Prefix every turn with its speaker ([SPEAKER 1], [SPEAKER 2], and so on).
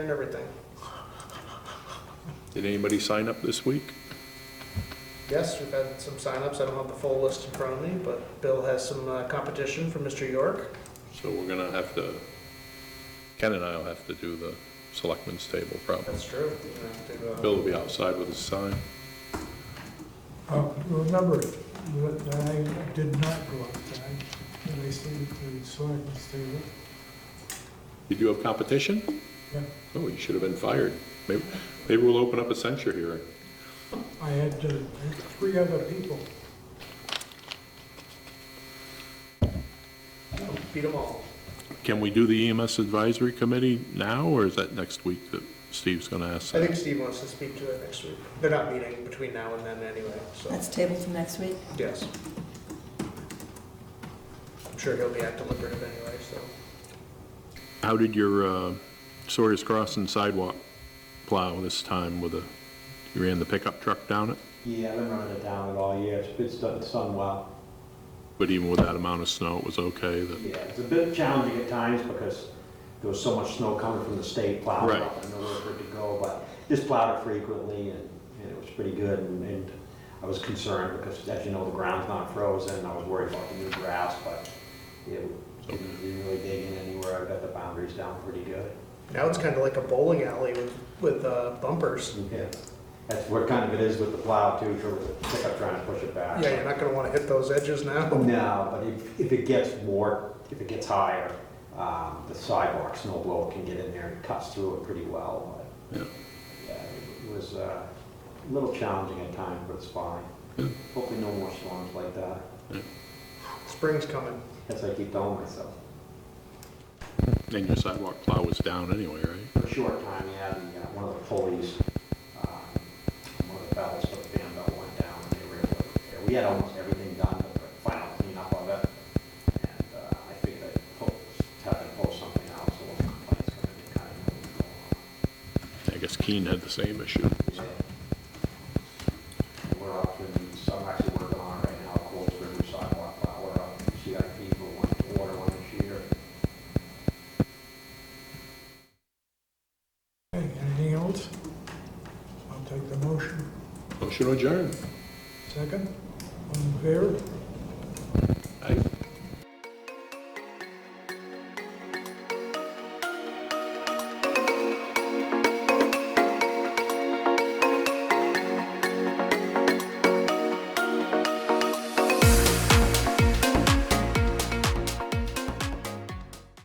[SPEAKER 1] and everything.
[SPEAKER 2] Did anybody sign up this week?
[SPEAKER 1] Yes, we've had some signups. I don't have the full list in front of me, but Bill has some uh, competition from Mr. York.
[SPEAKER 2] So we're gonna have to, Ken and I'll have to do the selectmen's table probably.
[SPEAKER 1] That's true. We're gonna have to, uh,
[SPEAKER 2] Bill will be outside with his sign.
[SPEAKER 3] Uh, Remember, that I did not go outside, and I stayed at the selectmen's table.
[SPEAKER 2] Did you have competition?
[SPEAKER 3] Yeah,
[SPEAKER 2] Oh, you should have been fired. Maybe, maybe we'll open up a censure hearing.
[SPEAKER 3] I had uh, three other people.
[SPEAKER 1] Beat them all.
[SPEAKER 2] Can we do the EMS advisory committee now, or is that next week that Steve's gonna ask?
[SPEAKER 1] I think Steve wants to speak to it next week. They're not meeting between now and then anyway, so,
[SPEAKER 4] That's table to next week.
[SPEAKER 1] yes. I'm sure he'll be at deliberative anyway, so.
[SPEAKER 2] How did your, uh, Sawyer's Crossing sidewalk plow this time with a, you ran the pickup truck down it?
[SPEAKER 5] Yeah, I've been running it down it all year. It's, it's done, it's done well.
[SPEAKER 2] But even with that amount of snow, it was okay that?
[SPEAKER 5] Yeah, it's a bit challenging at times because there was so much snow coming from the state plow
[SPEAKER 2] Right.
[SPEAKER 5] up and nowhere for it to go, but just plowed it frequently and, and it was pretty good and, and I was concerned because as you know, the ground's not frozen and I was worried about the new grass, but it didn't didn't really dig in anywhere. I've got the boundaries down pretty good.
[SPEAKER 1] Now it's kind of like a bowling alley with, with uh, bumpers.
[SPEAKER 5] Yeah, that's what kind of it is with the plow too, for the pickup trying to push it back.
[SPEAKER 1] Yeah, you're not gonna want to hit those edges now.
[SPEAKER 5] No, but if, if it gets more, if it gets higher, um, the sidewalk snow blower can get in there and cuts through it pretty well,
[SPEAKER 2] Yeah.
[SPEAKER 5] but yeah, it was uh, a little challenging at times, but it's fine. Hopefully no more storms like that,
[SPEAKER 1] Spring's coming.
[SPEAKER 5] as I keep telling myself.
[SPEAKER 2] And your sidewalk plow was down anyway, right?
[SPEAKER 5] For a short time, yeah, the, uh, one of the pulleys, um, one of the bells for the fan bell went down, and they were able to, we had almost everything done, but the final cleanup of it, and uh, I think they pulled, had to pull something out, so the complaints gonna be kind of moving
[SPEAKER 2] I guess Keene had the same issue.
[SPEAKER 5] along. And We're up in, some actually working on right now, Coles River sidewalk, uh, we're up in CIP for one, water one this year.
[SPEAKER 3] Okay, Anything else? I'll take the motion.
[SPEAKER 2] Motion adjourned.
[SPEAKER 3] Second, all in favor?